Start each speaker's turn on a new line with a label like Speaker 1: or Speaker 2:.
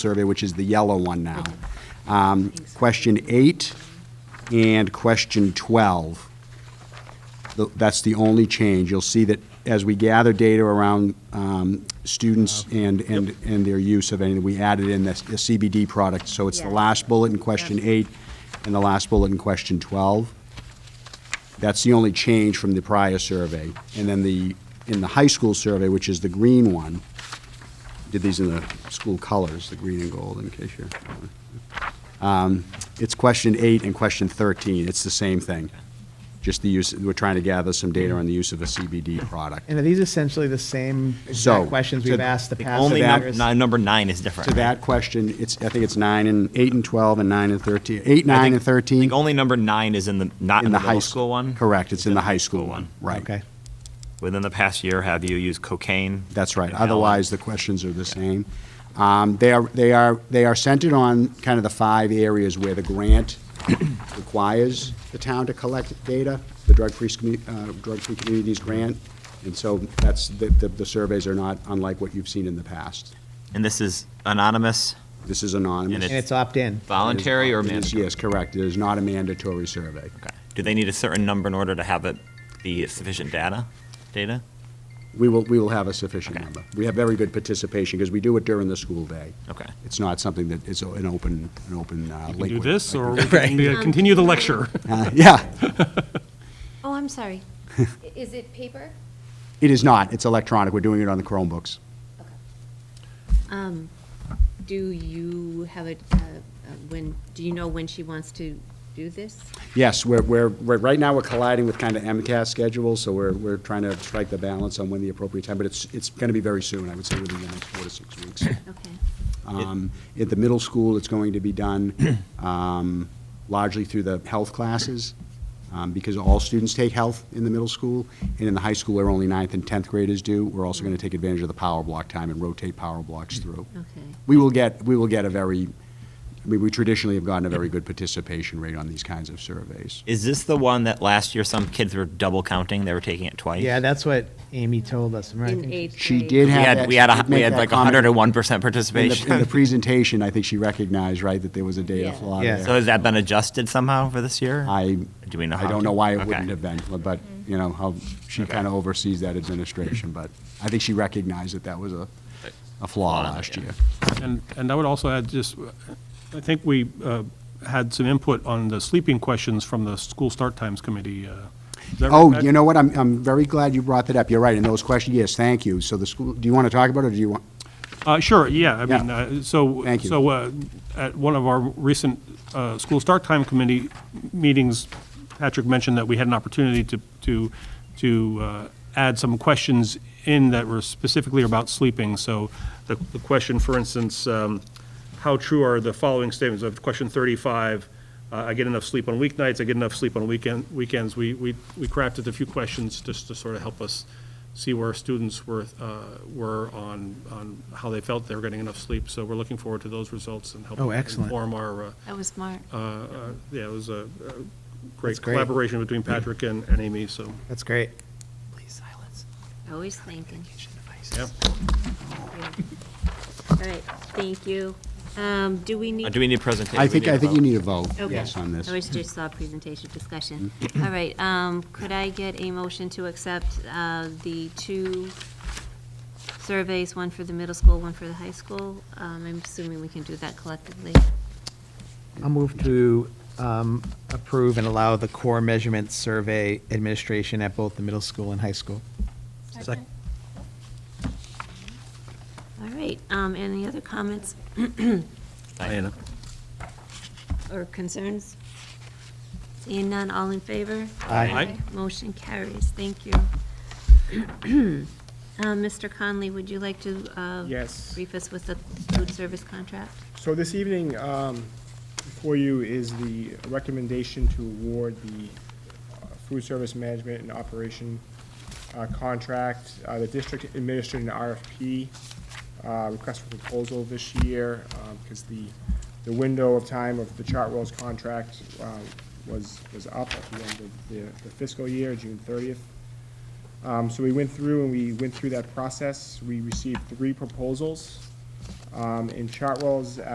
Speaker 1: survey, which is the yellow one now. Um, Question eight and question 12. Th- That's the only change. You'll see that as we gather data around um, students and, and and their use of anything, we added in this the CBD product. So it's the
Speaker 2: Yeah.
Speaker 1: last bullet in question eight and the last bullet in question 12. That's the only change from the prior survey. And then the, in the high school survey, which is the green one, did these in the school colors, the green and gold, in case you're. Um, It's question eight and question 13. It's the same thing. Just the use, we're trying to gather some data on the use of a CBD product.
Speaker 3: And are these essentially the same
Speaker 1: So,
Speaker 3: exact questions
Speaker 1: to-
Speaker 3: we've asked the
Speaker 1: The
Speaker 3: past
Speaker 1: only
Speaker 3: few
Speaker 1: num-
Speaker 3: years?
Speaker 4: Nine- number nine is different.
Speaker 1: To that question, it's, I think it's nine and, eight and 12 and nine and 13, eight, nine and 13.
Speaker 4: I think only number nine is in the, not in the
Speaker 1: high
Speaker 4: middle
Speaker 1: s-
Speaker 4: school one.
Speaker 1: Correct, it's in the high school one, right.
Speaker 3: Okay.
Speaker 4: Within the past year, have you used cocaine?
Speaker 1: That's right.
Speaker 4: And Allen?
Speaker 1: Otherwise, the questions are the same. Um, They are, they are, they are centered on kind of the five areas where the grant requires the town to collect data, the drug-free, Scommu- uh, drug-free communities grant. And so that's, the, the the surveys are not unlike what you've seen in the past.
Speaker 4: And this is anonymous,
Speaker 1: This is anonymous.
Speaker 3: And it's opt-in.
Speaker 4: voluntary, or
Speaker 1: It is-
Speaker 4: mandatory?
Speaker 1: Yes, correct. It is not a mandatory survey.
Speaker 4: Okay. Do they need a certain number in order to have it be sufficient data? Data?
Speaker 1: We will, we will have a sufficient
Speaker 4: Okay.
Speaker 1: number. We have very good participation because we do it during the school day.
Speaker 4: Okay.
Speaker 1: It's not something that is an open, an open uh,
Speaker 5: We
Speaker 1: liquid.
Speaker 5: can do this,
Speaker 1: like
Speaker 5: or
Speaker 1: this.
Speaker 5: we can be- continue the lecture.
Speaker 1: Uh, Yeah,
Speaker 2: Oh, I'm sorry. I- Is it paper?
Speaker 1: it is not. It's electronic. We're doing it on the Chromebooks.
Speaker 2: Um, Do you have a, uh, uh, when, do you know when she wants to do this?
Speaker 1: Yes, we're, we're, we're- right now, we're colliding with kind of MCAS schedules, so we're, we're trying to strike the balance on when the appropriate time, but it's, it's going to be very soon, I would say within the next four to six weeks.
Speaker 2: Okay.
Speaker 1: Um, At the middle school, it's going to be done um, largely through the health classes, um, because all students take health in the middle school, and in the high school, where only ninth and 10th graders do, we're also going to take advantage of the power block time and rotate power blocks through.
Speaker 2: Okay.
Speaker 1: We will get, we will get a very, I mean, we traditionally have gotten a very good participation rate on these kinds of surveys.
Speaker 4: Is this the one that last year some kids were double counting? They were taking it twice?
Speaker 3: Yeah, that's what Amy told us. right?
Speaker 2: In eighth grade?
Speaker 1: She did
Speaker 4: We
Speaker 1: have
Speaker 4: had,
Speaker 1: that-
Speaker 4: we had,
Speaker 1: she
Speaker 4: a-
Speaker 1: did
Speaker 4: we
Speaker 1: make
Speaker 4: had
Speaker 1: that
Speaker 4: like
Speaker 1: comment.
Speaker 4: 101%
Speaker 1: In the, in the
Speaker 4: participation.
Speaker 1: presentation, I think she recognized, right, that there was a data
Speaker 2: Yeah.
Speaker 1: flaw
Speaker 3: Yeah.
Speaker 1: there.
Speaker 4: So has that been adjusted somehow for this year?
Speaker 1: I,
Speaker 4: Do we know
Speaker 1: I
Speaker 4: how
Speaker 1: don't
Speaker 4: to-
Speaker 1: know why it
Speaker 4: Okay.
Speaker 1: wouldn't have been, but, you know, how, she
Speaker 4: Okay.
Speaker 1: kind of oversees that administration, but I think she recognized that that was a, a flaw
Speaker 4: Flaw,
Speaker 1: last
Speaker 4: yeah.
Speaker 1: year.
Speaker 5: And, and I would also add, just, I think we uh, had some input on the sleeping questions from the school start times committee. uh, is that
Speaker 1: Oh,
Speaker 5: right?
Speaker 1: you know what, I'm, I'm very glad you brought that up, you're right, and those questions, yes, thank you, so the school, do you want to talk about it, or do you want?
Speaker 5: Uh, Sure, yeah, I mean,
Speaker 1: Yeah.
Speaker 5: uh, so.
Speaker 1: Thank you.
Speaker 5: So uh, at one of our recent uh, school start time committee meetings, Patrick mentioned that we had an opportunity to, to, to uh, add some questions in that were specifically about sleeping. So the, the question, for instance, um, how true are the following statements of question 35? uh, I get enough sleep on weeknights, I get enough sleep on weekend, weekends. We, we we crafted a few questions just to sort of help us see where students were, uh, were on, on how they felt they were getting enough sleep. So we're looking forward to those results and help
Speaker 3: Oh, excellent.
Speaker 5: inform our, uh,
Speaker 2: That was smart.
Speaker 5: uh, yeah, it was a a
Speaker 3: That's
Speaker 5: great
Speaker 3: great.
Speaker 5: collaboration between Patrick and and Amy, so,
Speaker 3: That's great.
Speaker 4: Please silence
Speaker 2: Always thinking.
Speaker 5: yeah.
Speaker 2: All right, thank you. Um, Do we need?
Speaker 4: Uh, Do we need a presentation?
Speaker 1: I
Speaker 4: We
Speaker 1: think,
Speaker 4: a
Speaker 1: I think you
Speaker 4: vote.
Speaker 1: need a vote,
Speaker 2: Okay.
Speaker 1: yes, on this. Mm-hmm.
Speaker 2: I always just saw presentation discussion. All right, um, could I get a motion to accept uh, the two surveys, one for the middle school, one for the high school? Um, I'm assuming we can do that collectively.
Speaker 3: I'll move to um, approve and allow the core measurement survey administration at both the middle school and high school.
Speaker 6: Second.
Speaker 2: All right, um, any other comments
Speaker 5: Diana.
Speaker 2: or concerns? Seeing none, all in favor?
Speaker 3: Aye.
Speaker 5: Aye.
Speaker 2: Motion carries, thank you. Uh, Mr. Conley, would you like to uh,
Speaker 6: Yes.
Speaker 2: brief us with the food service contract?
Speaker 6: So this evening, um, before you is the recommendation to award the uh, food service management and operation uh, contract. Uh, The district administered an RFP, uh, request for proposal this year, because the, the window of time of the Chartwell's contract uh, was, was up at the end of the- the fiscal year, June thirtieth. Um, So we went through and we went through that process. We received three proposals. Um, In Chartwell's